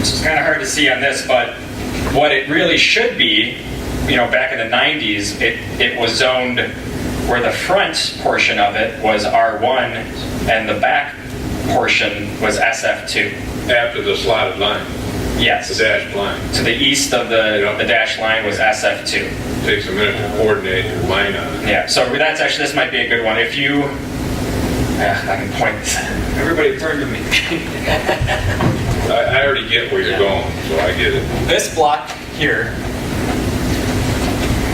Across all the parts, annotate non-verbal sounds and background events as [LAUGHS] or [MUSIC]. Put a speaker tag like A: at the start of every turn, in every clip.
A: it's kind of hard to see on this, but what it really should be, you know, back in the 90s, it, it was zoned where the front portion of it was R1 and the back portion was SF2.
B: after the slotted line, the
A: Yes.
B: dashed line.
A: To the east of the,
B: Yeah.
A: the dash line was SF2.
B: Takes a minute to coordinate your line on it.
A: Yeah, so that's actually, this might be a good one. If you, yeah, I can point, everybody turn to me. [LAUGHS]
B: I, I already get where you're going, so I get it.
C: This block here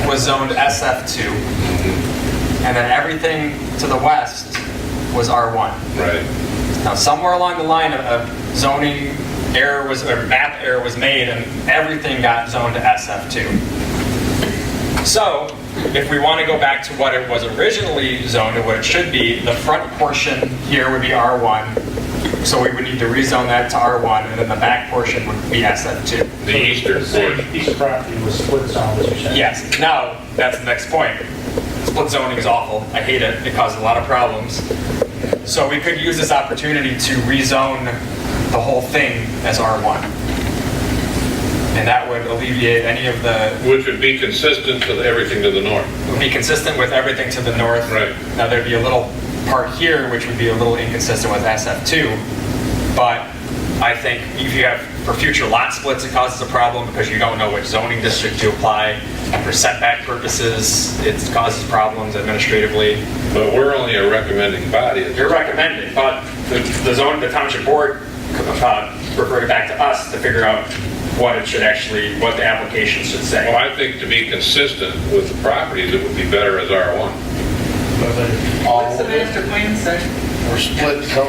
C: was zoned SF2, and then everything to the west was R1.
B: Right.
C: Now, somewhere along the line, a- a zoning error was, or map error was made, and everything got zoned to SF2. So, if we want to go back to what it was originally zoned to what it should be, the front portion here would be R1, so we would need to rezone that to R1, and then the back portion would be SF2.
B: The eastern portion.
D: Piece of property was split zone, as you said.
C: Yes, now, that's the next point. Split zoning is awful. I hate it. It causes a lot of problems. So we could use this opportunity to rezone the whole thing as R1. And that would alleviate any of the,
B: Which would be consistent with everything to the north.
C: would be consistent with everything to the north.
B: Right.
C: Now, there'd be a little part here, which would be a little inconsistent with SF2. But I think if you have, for future lot splits, it causes a problem because you don't know which zoning district to apply. For setback purposes, it causes problems administratively.
B: But we're only a recommending body.
A: You're recommending, but the, the zone, the township board, uh, referred it back to us to figure out what it should actually, what the application should
B: Well,
A: say.
B: I think to be consistent with the properties, it would be better as R1.
E: What's the master plan say?
F: We're split zone,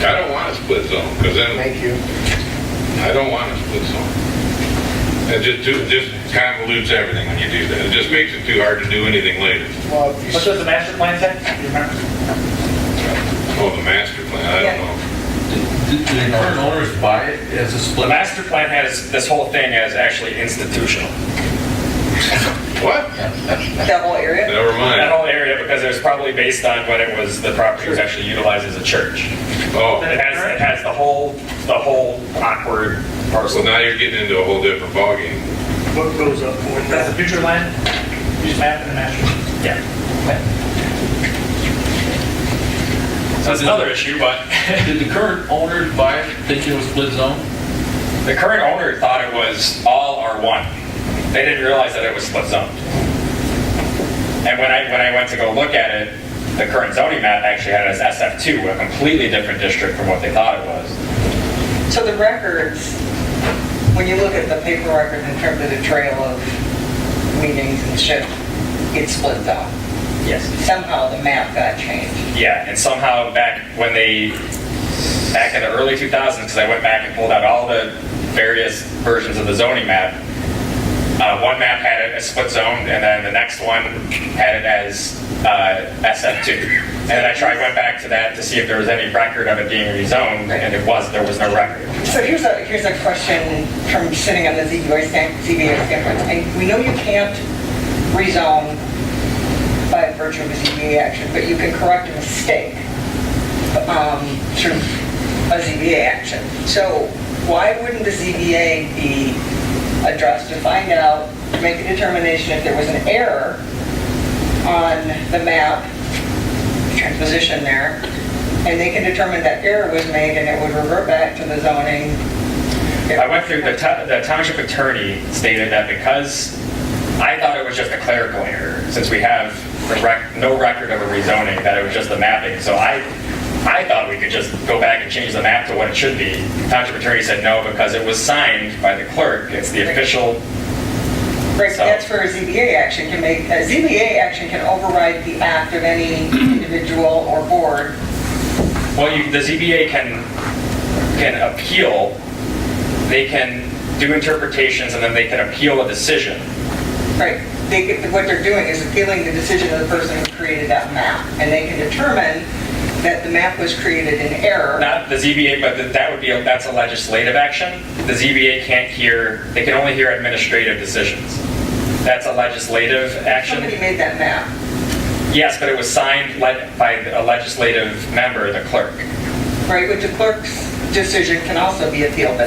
B: I don't want a split zone, because then
F: thank you.
B: I don't want a split zone. It just, do- just convolutes everything when you do that. It just makes it too hard to do anything later.
F: Well, if you
D: What does the master plan say? Do you remember?
B: Oh, the master plan, I don't know.
G: Do do the current owners buy it as a
A: The
G: split?
A: master plan has this whole thing as actually institutional.
B: What?
E: That whole area?
B: Never
A: That
B: mind.
A: whole area, because it was probably based on when it was, the property was actually utilized as a church. It
B: Oh,
A: has, it has the whole, the whole awkward
B: so
A: parcel.
B: now you're getting into a whole different ballgame.
D: What goes up? That's the future land? You just map in the master.
A: Yeah. So that's another issue, but
G: Did the current owners buy it thinking it was split zone?
A: the current owner thought it was all R1. They didn't realize that it was split zoned. And when I, when I went to go look at it, the current zoning map actually had it as SF2, a completely different district from what they thought it was.
E: So the records, when you look at the paper record in terms of the trail of meetings and shit, it splits out.
A: Yes.
E: Somehow the map got changed.
A: Yeah, and somehow back when they, back in the early 2000s, because I went back and pulled out all the various versions of the zoning map, uh, one map had it as split zoned, and then the next one had it as uh, SF2. And then I tried, went back to that to see if there was any record of it being rezoned, and it was, there was no record.
E: So here's a, here's a question from sitting on the ZBA stand- ZBA standpoint. I- We know you can't rezone by virtue of a ZBA action, but you can correct a mistake um, through a ZBA action. So why wouldn't the ZBA be addressed to find out, to make a determination if there was an error on the map transposition there, and they can determine that error was made and it would revert back to the zoning.
A: I went through, the to- the township attorney stated that because, I thought it was just a clerical error, since we have the rec- no record of a rezoning, that it was just the mapping. So I, I thought we could just go back and change the map to what it should be. Township attorney said no, because it was signed by the clerk, it's the official,
E: Right, but that's for a ZBA action can make, a ZBA action can override the act of
A: [CLEARS THROAT]
E: any individual or board.
A: well, you, the ZBA can, can appeal, they can do interpretations, and then they can appeal a decision.
E: Right, they, get- what they're doing is appealing the decision of the person who created that map. And they can determine that the map was created in error.
A: Not the ZBA, but th- that would be, a- that's a legislative action. The ZBA can't hear, they can only hear administrative decisions. That's a legislative
E: Somebody
A: action.
E: made that map,
A: Yes, but it was signed le- by a legislative member, the clerk.
E: right, which the clerk's decision can also be appealed, but